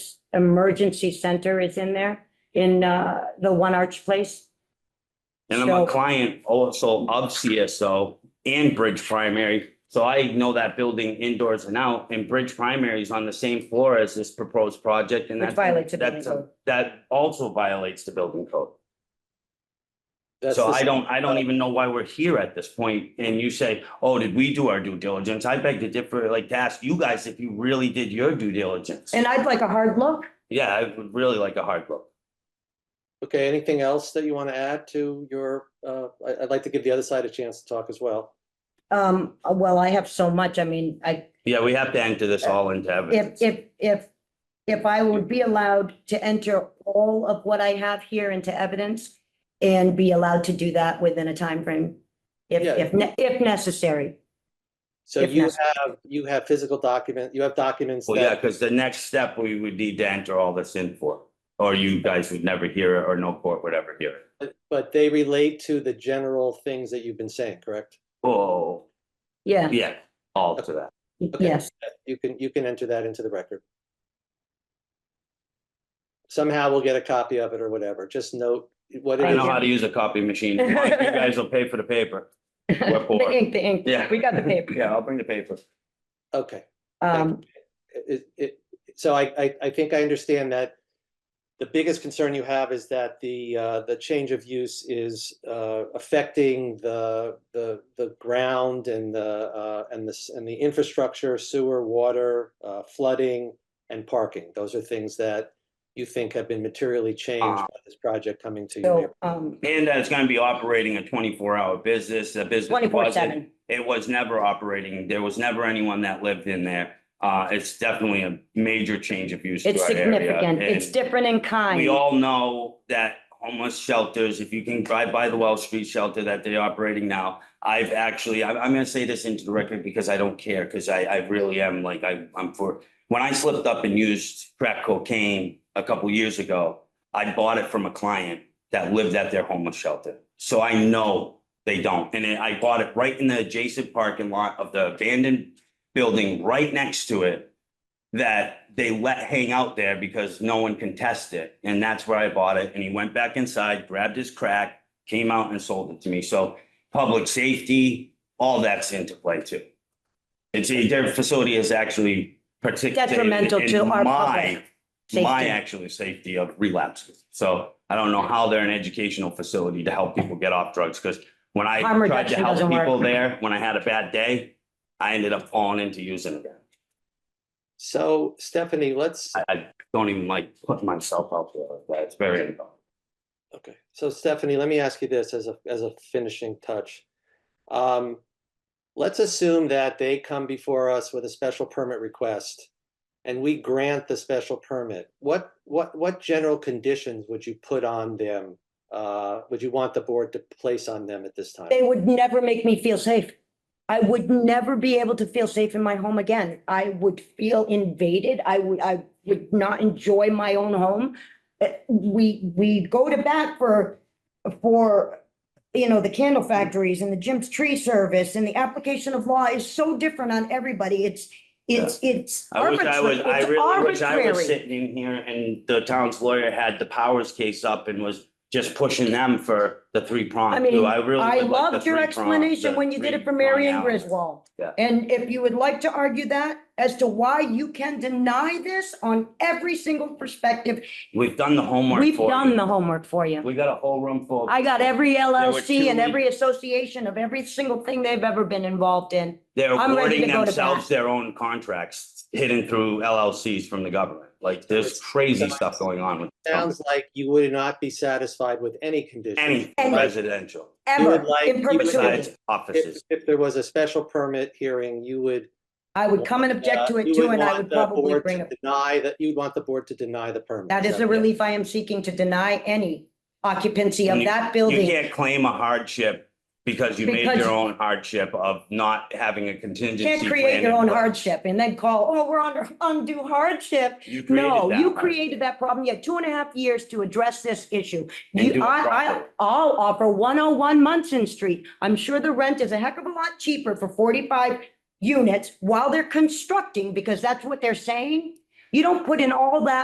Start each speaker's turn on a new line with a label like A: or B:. A: emergency center is in there, in uh, the One Arch Place.
B: And I'm a
A: So-
B: client also of CSO and Bridge Primary. So I know that building indoors and out and Bridge Primary is on the same floor as this proposed project and
A: Which
B: that's.
A: violates the building
B: that's-
A: code.
B: That also violates the building code.
C: That's
B: So
C: the
B: I
C: same-
B: don't, I don't even know why we're here at this point, And you say, oh, did we do our due diligence? I beg to differ, like to ask you guys if you really did your due diligence.
A: And I'd like a hard look.
B: Yeah, I would really like a hard look.
C: Okay, anything else that you want to add to your, uh, I, I'd like to give the other side a chance to talk as well.
A: Um, well, I have so much. I mean, I,
B: Yeah, we have to enter this all into
A: Uh, if,
B: evidence.
A: if, if, if I would be allowed to enter all of what I have here into evidence and be allowed to do that within a time frame, if,
C: Yeah.
A: if, ne- if necessary.
C: So
A: If
C: you
A: not-
C: have, you have physical document, you have documents
B: Well, yeah,
C: that,
B: because the next step we would need to enter all this in for, or you guys would never hear it or no court would ever hear it.
C: but they relate to the general things that you've been saying, correct?
B: Oh,
A: Yeah,
B: yeah, all to that.
C: Okay.
A: yes.
C: You can, you can enter that into the record. Somehow we'll get a copy of it or whatever. Just note what
B: I
C: it
B: know
C: is.
B: how to use a copy machine. Come on, You guys will pay for the paper. We're
A: The
B: poor.
A: ink, the ink.
B: Yeah.
A: We got the paper.
B: Yeah, I'll bring the paper.
C: Okay.
A: Um,
C: it, it, so I, I, I think I understand that the biggest concern you have is that the, uh, the change of use is, uh, affecting the, the, the ground and the, uh, and this, and the infrastructure, sewer, water, uh, flooding and parking. Those are things that you think have been materially changed
B: Uh.
C: by this project coming to you.
A: so, um,
B: And that it's gonna be operating a twenty-four hour business, a business.
A: twenty-four
B: wasn't-
A: seven.
B: It was never operating. There was never anyone that lived in there. Uh, it's definitely a major change of use. to
A: It's
B: our area,
A: significant. It's
B: and-
A: different in kind.
B: We all know that homeless shelters, if you can drive by the Wells Street shelter that they're operating now, I've actually, I'm, I'm gonna say this into the record because I don't care, because I, I really am like, I, I'm for, when I slipped up and used crack cocaine a couple years ago, I bought it from a client that lived at their homeless shelter. So I know they don't. And I bought it right in the adjacent parking lot of the abandoned building right next to it that they let hang out there because no one can test it. And that's where I bought it. And he went back inside, grabbed his crack, came out and sold it to me. So public safety, all that's into play too. It's, their facility is actually particularly.
A: Detrimental to our public
B: My
A: safety.
B: actually safety of relapses. So I don't know how they're an educational facility to help people get off drugs because when I
A: Harm
B: tried to
A: reduction
B: help
A: doesn't work.
B: people there, when I had a bad day, I ended up falling into using again.
C: So Stephanie, let's,
B: I, I don't even like put myself out there like that. It's very.
C: Okay, so Stephanie, let me ask you this as a, as a finishing touch. Um, let's assume that they come before us with a special permit request and we grant the special permit. What, what, what general conditions would you put on them? Uh, would you want the board to place on them at this time?
A: They would never make me feel safe. I would never be able to feel safe in my home again. I would feel invaded. I would, I would not enjoy my own home. Uh, We, we go to bat for, for, you know, the candle factories and the Jim's Tree Service and the application of law is so different on everybody. It's, it's, it's
B: I wish I was,
A: arbitrary.
B: I
A: It's
B: really wish I was
A: arbitrary.
B: sitting in here and the town's lawyer had the powers case up and was just pushing them for the three prong.
A: I mean,
B: too. I really
A: I
B: would like the
A: loved your
B: three prong-
A: explanation
B: the
A: when you did it for
B: three
A: Mary
B: prong
A: and
B: out.
A: Griswold.
B: Yeah.
A: And if you would like to argue that as to why you can deny this on every single perspective,
B: We've done the homework.
A: we've
B: for
A: done
B: you.
A: the homework for you.
B: We got a whole room full. of
A: I got
B: people.
A: every
B: two
A: LLC and
B: weeks-
A: every association of every single thing they've ever been involved in.
B: They're
A: I'm ready
B: awarding
A: to go to
B: themselves
A: bat.
B: their own contracts hidden through LLCs from the government. Like there's
C: It's-
B: crazy stuff going on with.
C: Sounds like you would not be satisfied with any conditions.
B: Any
A: Any-
B: residential.
A: Ever
C: would like-
A: in
C: you would
A: perpetuity.
B: besides
C: If,
B: offices.
C: if there was a special permit hearing, you would
A: I would come and object to
C: Uh,
A: it
C: you
A: too, and I
C: want
A: would
C: the
A: probably
C: board
A: bring
C: to
A: it.
C: Deny that, you'd want the board to deny the permit.
A: That is
C: the
A: the relief I am seeking to deny any occupancy of
B: And
A: that
B: You
A: building.
B: can't claim a hardship because you made
A: Because-
B: your own hardship of not having a contingency.
A: Can't create
B: plan
A: your
B: in
A: own
B: place.
A: hardship and then call, oh, we're under undue hardship.
B: You created
A: No,
B: that
A: you
B: hardship.
A: created that problem. You had two and a half years to address this issue.
B: And do
A: You,
B: it
A: I, I,
B: properly.
A: I'll offer one oh one Munson Street. I'm sure the rent is a heck of a lot cheaper for forty-five units while they're constructing, because that's what they're saying. You don't put in all that